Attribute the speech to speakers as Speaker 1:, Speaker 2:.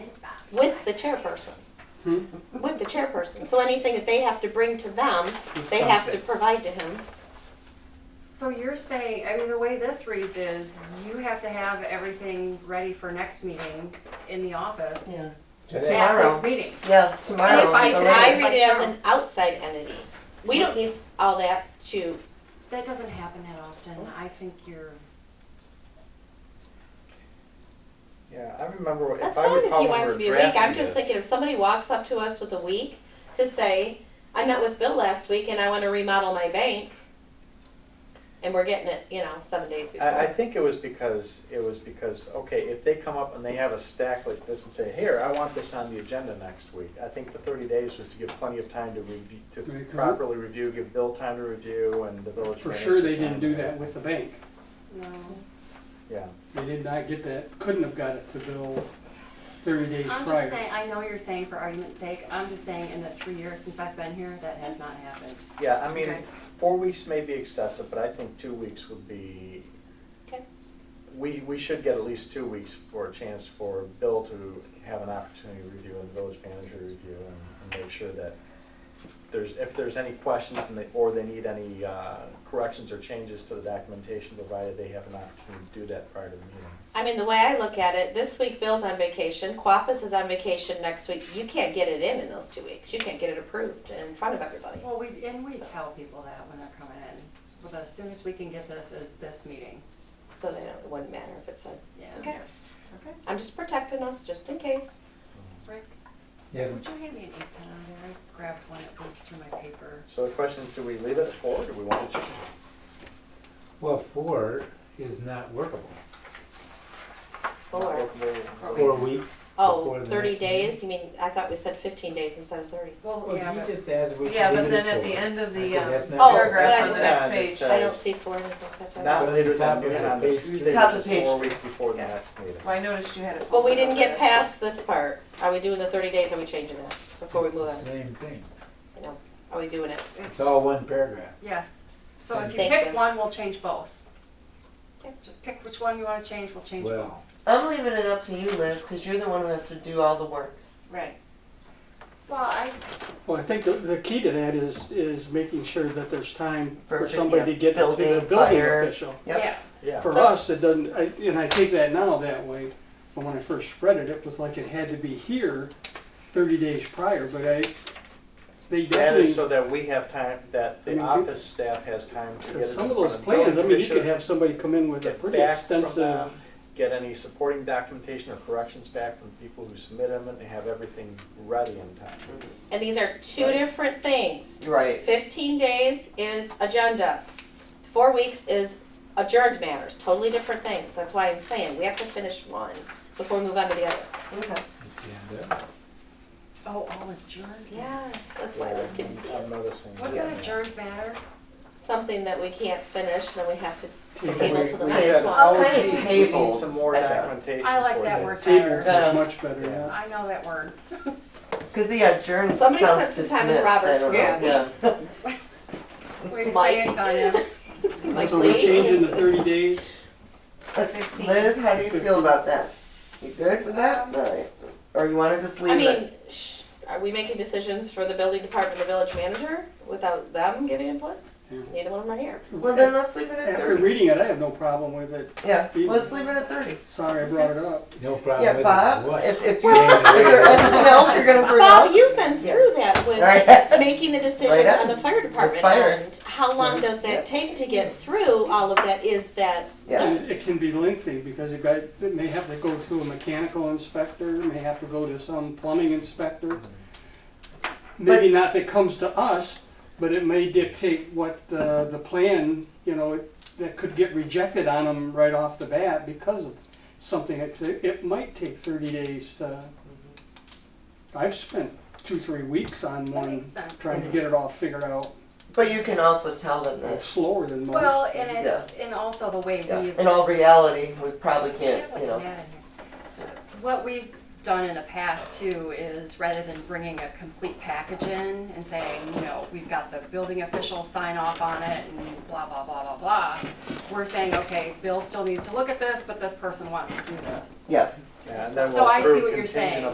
Speaker 1: the chairperson.
Speaker 2: Hmm?
Speaker 1: With the chairperson. So anything that they have to bring to them, they have to provide to him.
Speaker 3: So you're saying, I mean, the way this reads is you have to have everything ready for next meeting in the office
Speaker 4: Yeah,
Speaker 3: at
Speaker 2: Tomorrow.
Speaker 3: this meeting.
Speaker 4: yeah,
Speaker 1: I,
Speaker 4: tomorrow.
Speaker 3: If
Speaker 1: I,
Speaker 4: the
Speaker 1: I
Speaker 4: latest.
Speaker 1: read it as an outside entity. We don't need all that to,
Speaker 3: That doesn't happen that often. I think you're,
Speaker 5: Yeah, I remember if
Speaker 1: that's
Speaker 5: I
Speaker 1: fine if
Speaker 5: recall
Speaker 1: you
Speaker 5: when
Speaker 1: want
Speaker 5: we
Speaker 1: it
Speaker 5: were
Speaker 1: to be a week. I'm
Speaker 5: drafting
Speaker 1: just
Speaker 5: this-
Speaker 1: thinking if somebody walks up to us with a week to say, I met with Bill last week and I want to remodel my bank. And we're getting it, you know, seven days
Speaker 5: I, I
Speaker 1: before.
Speaker 5: think it was because, it was because, okay, if they come up and they have a stack like this and say, here, I want this on the agenda next week. I think the thirty days was to give plenty of time to review, to
Speaker 2: Right, 'cause it-
Speaker 5: properly review, give Bill time to review and the village.
Speaker 2: For
Speaker 5: manager
Speaker 2: sure, they
Speaker 5: time
Speaker 2: didn't
Speaker 5: to-
Speaker 2: do that with the bank.
Speaker 3: no.
Speaker 5: Yeah,
Speaker 2: They did not get that, couldn't have got it to Bill thirty days
Speaker 3: I'm just
Speaker 2: prior.
Speaker 3: saying, I know you're saying for argument's sake, I'm just saying in the three years since I've been here, that has not happened.
Speaker 5: yeah, I mean,
Speaker 3: Okay.
Speaker 5: four weeks may be excessive, but I think two weeks would be.
Speaker 1: Okay.
Speaker 5: We, we should get at least two weeks for a chance for Bill to have an opportunity to review and the village manager to review and, and make sure that there's, if there's any questions and they, or they need any, uh, corrections or changes to the documentation provided, they have an opportunity to do that prior to the meeting.
Speaker 1: I mean, the way I look at it, this week Bill's on vacation, Quapis is on vacation next week. You can't get it in in those two weeks. You can't get it approved in front of everybody.
Speaker 3: Well, we, and we tell people that when they're coming in. Well, as soon as we can get this is this meeting.
Speaker 1: So they don't, it wouldn't matter if it said,
Speaker 3: Yeah.
Speaker 1: okay.
Speaker 3: Okay.
Speaker 1: I'm just protecting us, just in case.
Speaker 3: Rick,
Speaker 6: Yeah,
Speaker 3: would you hand me an ink pen out of there? I grabbed one that goes through my paper.
Speaker 5: So the question is, do we leave it at four, or do we want to change it?
Speaker 6: well, four is not workable.
Speaker 1: Four.
Speaker 6: Four weeks. before
Speaker 1: Oh,
Speaker 6: the
Speaker 1: thirty
Speaker 6: next
Speaker 1: days, you mean, I thought we said fifteen days instead of thirty.
Speaker 3: Well,
Speaker 6: Well,
Speaker 3: yeah,
Speaker 6: you
Speaker 3: but
Speaker 6: just asked we should
Speaker 4: Yeah, but
Speaker 6: leave it
Speaker 4: then at
Speaker 6: four.
Speaker 4: the end of
Speaker 6: I
Speaker 4: the
Speaker 6: said
Speaker 4: um,
Speaker 6: that's not
Speaker 1: Oh,
Speaker 4: paragraph on the
Speaker 1: but I-
Speaker 4: next
Speaker 5: Yeah,
Speaker 4: page,
Speaker 5: it's, uh,
Speaker 1: I don't see four in anything, that's what I
Speaker 5: Not
Speaker 1: thought.
Speaker 6: But
Speaker 5: later than
Speaker 6: top of
Speaker 5: noon
Speaker 6: the
Speaker 5: on the
Speaker 6: page.
Speaker 5: Tuesday, which
Speaker 4: Top of
Speaker 5: is
Speaker 4: page.
Speaker 5: four weeks before the
Speaker 4: Yeah.
Speaker 5: next meeting.
Speaker 4: well, I noticed you had it.
Speaker 1: Well, we
Speaker 4: folded
Speaker 1: didn't
Speaker 4: up
Speaker 1: get
Speaker 4: there.
Speaker 1: past this part. Are we doing the thirty days, are we changing that before we
Speaker 6: It's
Speaker 1: move
Speaker 6: the
Speaker 1: on?
Speaker 6: Same thing.
Speaker 1: You know, Are we doing it?
Speaker 3: it's
Speaker 6: It's all
Speaker 3: just-
Speaker 6: one paragraph.
Speaker 3: Yes, so if you
Speaker 1: Thank
Speaker 3: pick
Speaker 1: you.
Speaker 3: one, we'll change both.
Speaker 1: Okay.
Speaker 3: Just pick which one you wanna change, we'll change both.
Speaker 6: Well,
Speaker 4: I'm leaving it up to you, Liz, because you're the one who has to do all the work.
Speaker 3: Right. Well, I,
Speaker 2: Well, I think the, the key to that is, is making sure that there's time for
Speaker 4: For,
Speaker 2: somebody
Speaker 4: yeah,
Speaker 2: to get to the
Speaker 4: building,
Speaker 2: building
Speaker 4: fire.
Speaker 2: official.
Speaker 4: Yep.
Speaker 3: yeah,
Speaker 5: Yeah.
Speaker 2: For us, it doesn't, I- and I take that now that way, but when I first spread it, it was like it had to be here thirty days prior, but I,
Speaker 5: That
Speaker 2: they
Speaker 5: is
Speaker 2: definitely,
Speaker 5: so that we have time, that
Speaker 2: I
Speaker 5: the
Speaker 2: mean,
Speaker 5: office staff has time to get it in
Speaker 2: some of
Speaker 5: front
Speaker 2: those
Speaker 5: the building
Speaker 2: plans, I mean, you could
Speaker 5: commissioner,
Speaker 2: have somebody come in with a
Speaker 5: get
Speaker 2: pretty
Speaker 5: back from
Speaker 2: extensive,
Speaker 5: them, Get any supporting documentation or corrections back from people who submit them and have everything ready in time.
Speaker 1: And these are two
Speaker 5: Right.
Speaker 1: different things.
Speaker 4: Right.
Speaker 1: Fifteen days is agenda. Four weeks is adjourned matters, totally different things. That's why I'm saying, we have to finish one before we move on to the other.
Speaker 4: Okay.
Speaker 6: it's the end of it.
Speaker 3: oh, all adjourned?
Speaker 1: Yes, that's why I was
Speaker 5: Yeah, I'm-
Speaker 1: confused.
Speaker 5: I'm noticing.
Speaker 3: What's
Speaker 5: that.
Speaker 3: an adjourned matter?
Speaker 1: something that we can't finish, then we have to
Speaker 2: So
Speaker 1: table
Speaker 5: we-
Speaker 1: to the
Speaker 5: we
Speaker 1: next
Speaker 5: had-
Speaker 1: one.
Speaker 4: I'll kind
Speaker 5: We
Speaker 4: of
Speaker 5: need
Speaker 4: table.
Speaker 5: Some more documentation.
Speaker 3: I like
Speaker 5: for
Speaker 3: that
Speaker 5: this.
Speaker 3: word
Speaker 2: tables
Speaker 3: better.
Speaker 2: was
Speaker 4: Yeah.
Speaker 2: much better, yeah.
Speaker 3: I know that word.
Speaker 4: Because the adjourned
Speaker 1: Somebody
Speaker 4: sounds
Speaker 1: spent some time in
Speaker 4: dismissed, I
Speaker 1: Robert's
Speaker 4: don't know.
Speaker 1: rules.
Speaker 4: Yeah.
Speaker 3: Way to say
Speaker 1: Mike.
Speaker 3: it, Tanya.
Speaker 1: Like,
Speaker 2: So we're
Speaker 1: wait.
Speaker 2: changing the thirty days,
Speaker 4: Let's- Liz, how do you feel about that? Um, You good with that? All right. Or you want to just leave
Speaker 1: I
Speaker 4: it?
Speaker 1: mean, sh- are we making decisions for the building department, the village manager, without them giving input?
Speaker 2: Yeah.
Speaker 1: Neither one of them are here.
Speaker 4: Well, then let's leave it at
Speaker 2: after
Speaker 4: 30.
Speaker 2: reading it, I have no problem with it,
Speaker 4: Yeah, let's leave it at 30.
Speaker 2: sorry I brought it up.
Speaker 6: No problem with
Speaker 4: Yeah,
Speaker 6: it.
Speaker 4: Bob,
Speaker 6: Uh, What?
Speaker 4: if, if you,
Speaker 6: Well-
Speaker 4: is there anything else you're gonna bring
Speaker 1: Bob,
Speaker 4: up?
Speaker 1: you've been through that with
Speaker 4: Right.
Speaker 1: making the decisions
Speaker 4: Right
Speaker 1: on
Speaker 4: on.
Speaker 1: the fire department
Speaker 4: fire.
Speaker 1: and how long does
Speaker 4: Yeah.
Speaker 1: that take to get through all of that? Is that,
Speaker 4: Yeah,
Speaker 2: And It can be lengthy because it got, it may have to go to a mechanical inspector, may have to go to some plumbing inspector. Maybe not that comes to us, but it may dictate what the, the plan, you know, it- that could get rejected on them right off the bat because of something. It's- It might take thirty days to, I've spent two, three weeks on
Speaker 3: That makes
Speaker 2: one,
Speaker 3: sense.
Speaker 2: trying to get it all figured out.
Speaker 4: but you can also tell
Speaker 2: It's
Speaker 4: them that,
Speaker 2: slower than most.
Speaker 3: Well, and it's, and also the way
Speaker 4: yeah,
Speaker 3: we
Speaker 4: in all reality, we probably can't,
Speaker 3: Yeah,
Speaker 4: you
Speaker 3: what's
Speaker 4: know.
Speaker 3: that in here? What we've done in the past too is rather than bringing a complete package in and saying, you know, we've got the building official sign off on it and blah, blah, blah, blah, blah. We're saying, okay, Bill still needs to look at this, but this person wants to do this.
Speaker 4: Yeah,
Speaker 5: Yeah, And then
Speaker 3: So I
Speaker 5: we'll
Speaker 3: see what
Speaker 5: prove
Speaker 3: you're saying.
Speaker 5: contingent